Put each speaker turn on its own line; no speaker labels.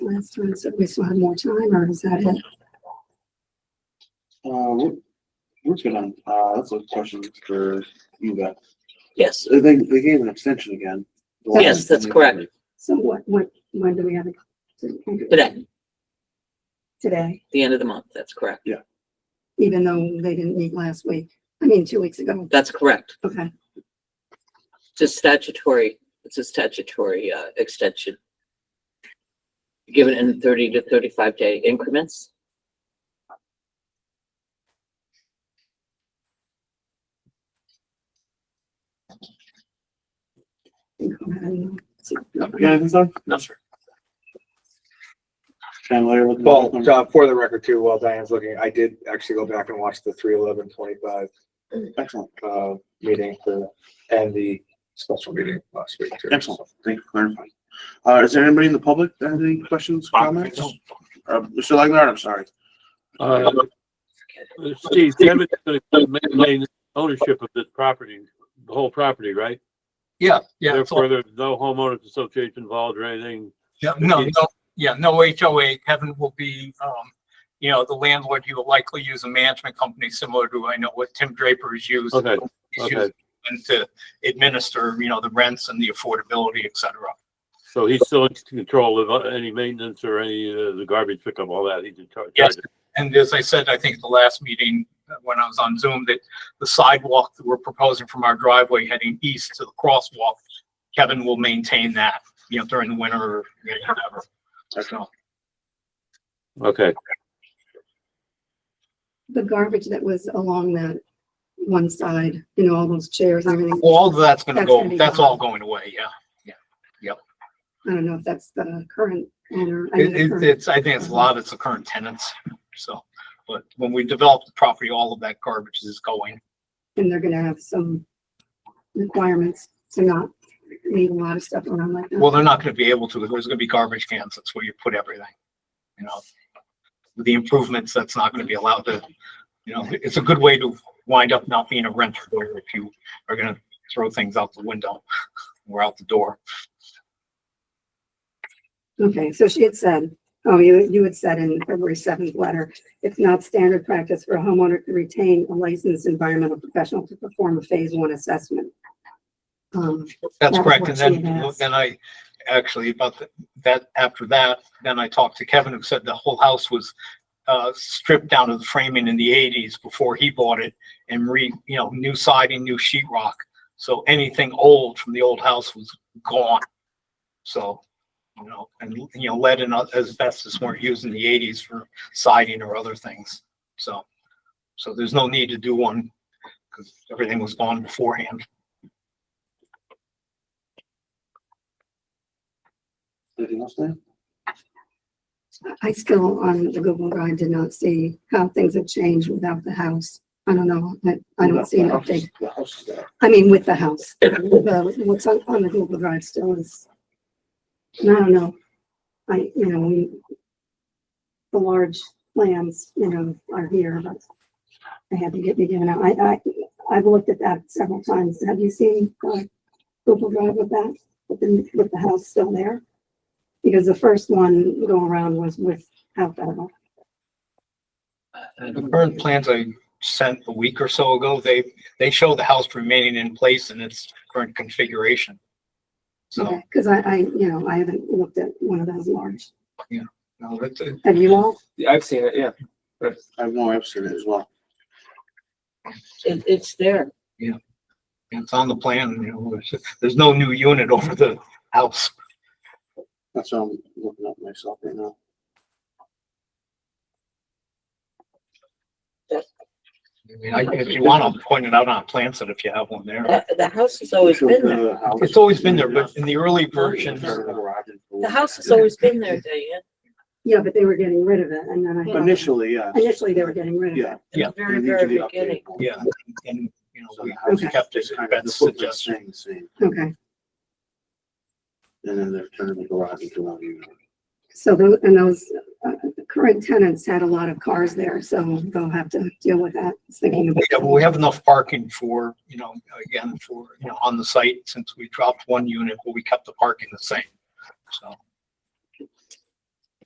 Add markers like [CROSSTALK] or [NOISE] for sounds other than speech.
last time, so we still have more time, or is that it?
Uh, we're, we're good on, uh, that's a question for you guys.
Yes,
So They, they gave an extension again.
Yes, that's correct.
So what, what, when do we have it?
Today.
Today,
the end of the month, that's correct.
even though they didn't meet last week, I mean, two weeks ago,
That's correct.
okay,
It's a statutory, it's a statutory, uh, extension. Given in thirty to thirty-five day increments.
go ahead and-
You got anything, sir? No, sir. Can I layer with? the-
Well, uh, for the record too, while Diane's looking, I did actually go back and watch the three eleven twenty-five,
Excellent,
uh, meeting for, and the special meeting last week too.
excellent. Thank you for clarifying. Uh, is there anybody in the public that has any questions, comments? Uh, Mr. Legnar, I'm sorry.
Uh, Steve, Kevin's gonna maintain ownership of this property, the whole property, right?
Yeah, yeah, it's all-
Therefore, there's no homeowners association involved or anything.
yeah, no, no, yeah, no HOA. Kevin will be, um, you know, the landlord, he will likely use a management company similar to, I know what Tim Draper has used.
Okay,
He's
okay.
used And to administer, you know, the rents and the affordability, et cetera.
So he's still in control of uh, any maintenance or any, uh, the garbage pickup, all that. He's in charge.
Yes. And as I said, I think at the last meeting, uh, when I was on Zoom, that the sidewalk that we're proposing from our driveway heading east to the crosswalk, Kevin will maintain that, you know, during the winter or you know, whatever. So,
Okay,
The garbage that was along that one side, you know, all those chairs and everything,
All of that's gonna
That's
go,
gonna be
that's
gone.
all going away, yeah.
I don't know if that's the current owner. I mean,
It,
the
it,
current-
it's, I think it's a lot, it's the current tenants, so, but when we develop the property, all of that garbage is going.
And they're gonna have some requirements to not leave a lot of stuff around like that.
Well, they're not gonna be able to, there's gonna be garbage cans, that's where you put everything, you know? With The improvements, that's not gonna be allowed to, you know, it's a good way to wind up not being a renter, where if you are gonna throw things out the window or out the door.
Okay, so she had said, oh, you, you had said in the February seventh letter, it's not standard practice for a homeowner to retain a licensed environmental professional to perform a phase one assessment. Um,
That's
That's
correct, and
what she
then,
had asked.
then I, actually, about the- that, after that, then I talked to Kevin, who said the whole house was uh, stripped down to the framing in the eighties before he bought it, and re, you know, new siding, new sheetrock. so anything old from the old house was gone. So, you know, and, you know, lead and asbestos weren't used in the eighties for siding or other things, so. So there's no need to do one, because everything was gone beforehand.
Anything else, Dan?
I still, on the Google Drive, did not see how things have changed without the house. I don't know, I, I don't see an
The house is-
update.
The house is there.
I mean, with the house, the, what's on, on the Google Drive still is, and I don't know. I, you know, we, the large plans, you know, are here, but they had to get me given out. I, I, I've looked at that several times. Have you seen, uh, Google Drive with that, with the, with the house still there? Because the first one go around was without that. one.
The current plans I sent a week or so ago, they, they show the house remaining in place in its current configuration. So, Oh.
Okay, Cause I, I, you know, I haven't looked at one of those large.
no, that's it.
Have you all?
I've seen it, yeah.
I have no, I've seen it as well.
It, it's there.
it's on the plan, you know, there's, there's no new unit [LAUGHS] over the house.
That's what I'm looking at myself right now.
I mean, I- If you want, I'll point it out on plans that if you have one there.
The, the house has always been there.
It's always been there, but in the early versions,
The house has always been there, Diane.
Yeah, but they were getting rid of it and then I. thought-
Initially, yeah.
Initially, they were getting rid of it.
Yeah.
In
Yeah.
the very,
They need to
very
be updated.
beginning.
yeah, and, you know,
So the
we
house
we
Okay.
kept it,
is kind of- the
that's
footprint's
suggestion.
staying the same,
Okay,
And then they're turning the garage into one unit.
so those, and those uh, current tenants had a lot of cars there, so they'll have to deal with that. It's thinking of-
Yeah, well, we have enough parking for, you know, again, for, you know, on the site, since we dropped one unit, but we kept the parking the same. So